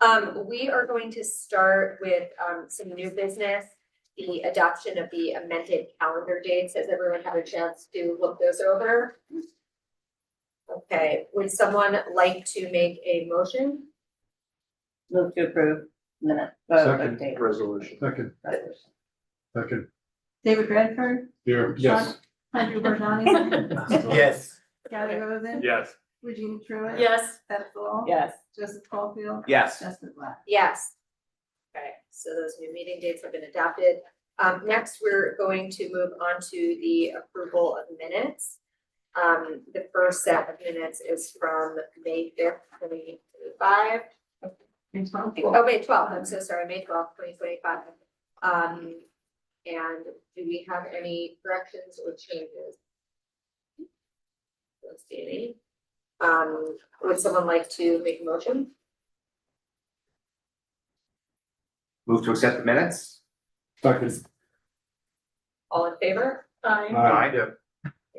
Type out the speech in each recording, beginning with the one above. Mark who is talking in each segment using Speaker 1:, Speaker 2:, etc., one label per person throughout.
Speaker 1: Um, we are going to start with, um, some new business. The adoption of the amended calendar dates. Has everyone had a chance to look those over? Okay, would someone like to make a motion?
Speaker 2: Move to approve minute. uh,
Speaker 3: Second resolution. Second, second.
Speaker 4: David Bradford,
Speaker 3: Here,
Speaker 4: yes. Andrew Bernani,
Speaker 5: Yes.
Speaker 4: Gary Rosen,
Speaker 3: Yes.
Speaker 4: Regina Truitt.
Speaker 1: Yes.
Speaker 4: Beth Law.
Speaker 2: Yes,
Speaker 4: Joseph Caulfield.
Speaker 5: Yes.
Speaker 4: Justin Black.
Speaker 1: Yes. Okay, so those new meeting dates have been adopted. Um, next, we're going to move on to the approval of minutes. Um, the first set of minutes is from May fifth, twenty twenty-five. Oh, May twelfth, I'm so sorry, May twelfth, twenty twenty-five. Um, and do we have any corrections or changes? Don't see any. Um, would someone like to make a motion?
Speaker 5: Move to accept the minutes?
Speaker 3: Second.
Speaker 1: All in favor?
Speaker 5: Aye.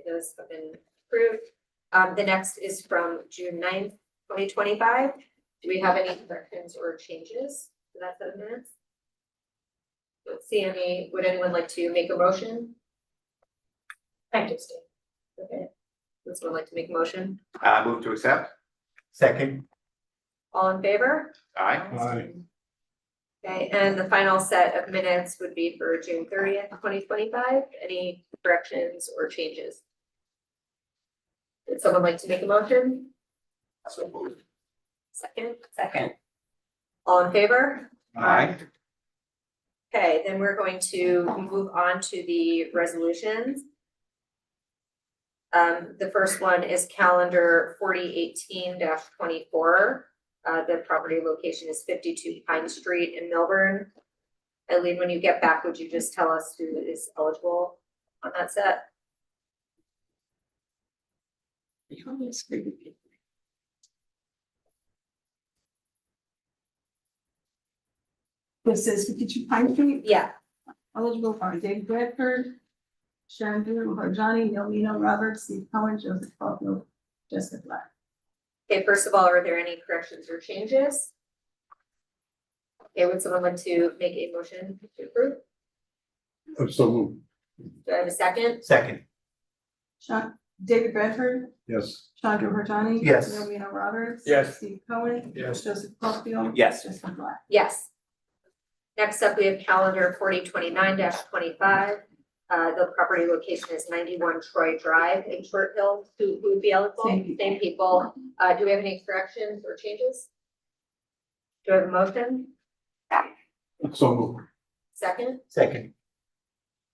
Speaker 1: Those have been approved. Um, the next is from June 9th, twenty twenty-five. Do we have any corrections or changes to that set of minutes? Don't see any. Would anyone like to make a motion? I do, Steve. Okay. Would someone like to make a motion?
Speaker 5: Uh, move to accept? Second.
Speaker 1: All in favor?
Speaker 5: Aye.
Speaker 3: Aye.
Speaker 1: Okay, and the final set of minutes would be for June thirtieth, twenty twenty-five. Any corrections or changes? Would someone like to make a motion?
Speaker 5: So moved.
Speaker 1: Second,
Speaker 2: second.
Speaker 1: all in favor?
Speaker 5: Aye.
Speaker 1: Okay, then we're going to move on to the resolutions. Um, the first one is calendar forty eighteen twenty-four. Uh, the property location is fifty-two Pine Street in Melbourne. Eileen, when you get back, would you just tell us who is eligible on that set?
Speaker 4: This is fifty-two Pine Street,
Speaker 1: Yeah,
Speaker 4: eligible are David Bradford, Sharon Durham, Harjani, Neil Mino, Roberts, Steve Cohen, Joseph Caulfield, Jessica Black.
Speaker 1: okay, first of all, are there any corrections or changes? Okay, would someone like to make a motion to approve?
Speaker 3: I'm so moved,
Speaker 1: Do I have a second?
Speaker 5: Second.
Speaker 4: Sean, David Bradford,
Speaker 3: yes.
Speaker 4: Chandra Harjani.
Speaker 5: Yes.
Speaker 4: Neil Mino Roberts.
Speaker 3: Yes.
Speaker 4: Steve Cohen.
Speaker 3: Yes.
Speaker 4: Joseph Caulfield.
Speaker 5: Yes.
Speaker 4: Jessica Black.
Speaker 1: Yes. Next up, we have calendar forty twenty-nine twenty-five. Uh, the property location is ninety-one Troy Drive in Short Hill, who who would be eligible,
Speaker 4: Same people.
Speaker 1: same people. Uh, do we have any corrections or changes? Do I have a motion?
Speaker 3: So moved,
Speaker 1: Second?
Speaker 5: Second.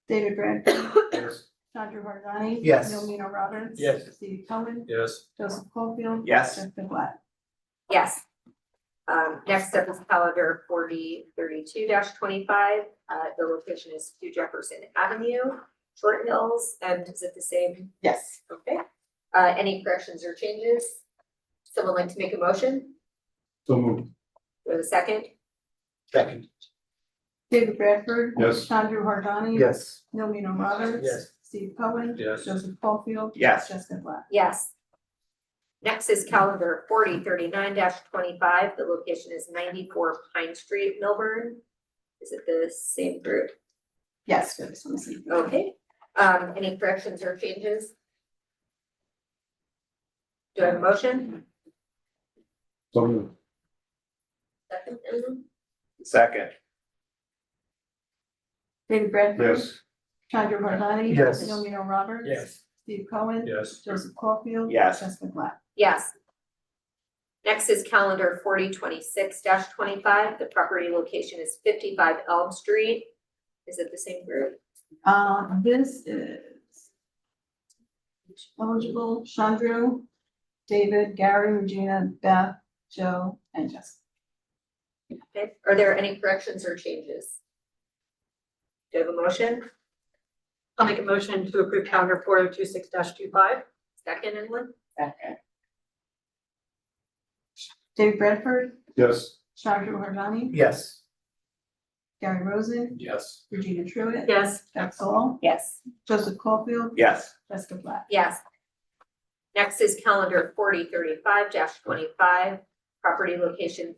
Speaker 4: David Bradford,
Speaker 3: yes.
Speaker 4: Chandra Harjani.
Speaker 5: Yes.
Speaker 4: Neil Mino Roberts.
Speaker 3: Yes.
Speaker 4: Steve Cohen.
Speaker 3: Yes.
Speaker 4: Joseph Caulfield.
Speaker 5: Yes.
Speaker 4: Jessica Black.
Speaker 1: Yes. Um, next up is calendar forty thirty-two twenty-five. Uh, the location is two Jefferson Avenue, Short Hills, and is it the same
Speaker 2: Yes,
Speaker 1: Okay, uh, any corrections or changes? Someone like to make a motion?
Speaker 3: So moved,
Speaker 1: Or the second?
Speaker 5: Second.
Speaker 4: David Bradford.
Speaker 3: Yes.
Speaker 4: Chandra Harjani.
Speaker 5: Yes.
Speaker 4: Neil Mino Roberts.
Speaker 5: Yes.
Speaker 4: Steve Cohen.
Speaker 3: Yes.
Speaker 4: Joseph Caulfield.
Speaker 5: Yes.
Speaker 4: Jessica Black.
Speaker 1: Yes. Next is calendar forty thirty-nine twenty-five. The location is ninety-four Pine Street, Milburn. Is it the same group?
Speaker 4: Yes, good, so let's see.
Speaker 1: Okay, um, any corrections or changes? Do I have a motion?
Speaker 3: so moved,
Speaker 1: Second, Emily?
Speaker 5: Second.
Speaker 4: David Bradford.
Speaker 3: yes.
Speaker 4: Chandra Harjani.
Speaker 5: Yes.
Speaker 4: Neil Mino Roberts. Steve Cohen.
Speaker 3: Yes.
Speaker 4: Joseph Caulfield.
Speaker 5: Yes.
Speaker 4: Jessica Black.
Speaker 1: Yes. Next is calendar forty twenty-six twenty-five. The property location is fifty-five Elm Street. Is it the same group?
Speaker 4: Uh, this is eligible Chandra, David, Gary, Regina, Beth, Joe, and Jessica.
Speaker 1: Okay. Are there any corrections or changes? Do you have a motion?
Speaker 6: I'll make a motion to approve calendar four oh two six dash two five.
Speaker 1: Second, anyone?
Speaker 2: second.
Speaker 4: David Bradford,
Speaker 3: Yes.
Speaker 4: Chandra Harjani,
Speaker 5: Yes.
Speaker 4: Gary Rosen,
Speaker 3: Yes.
Speaker 4: Regina Truitt.
Speaker 6: Yes.
Speaker 4: Beth Saul,
Speaker 1: Yes.
Speaker 4: Joseph Caulfield,
Speaker 5: Yes.
Speaker 4: Jessica Black.
Speaker 1: Yes. Next is calendar forty thirty-five twenty-five. Property location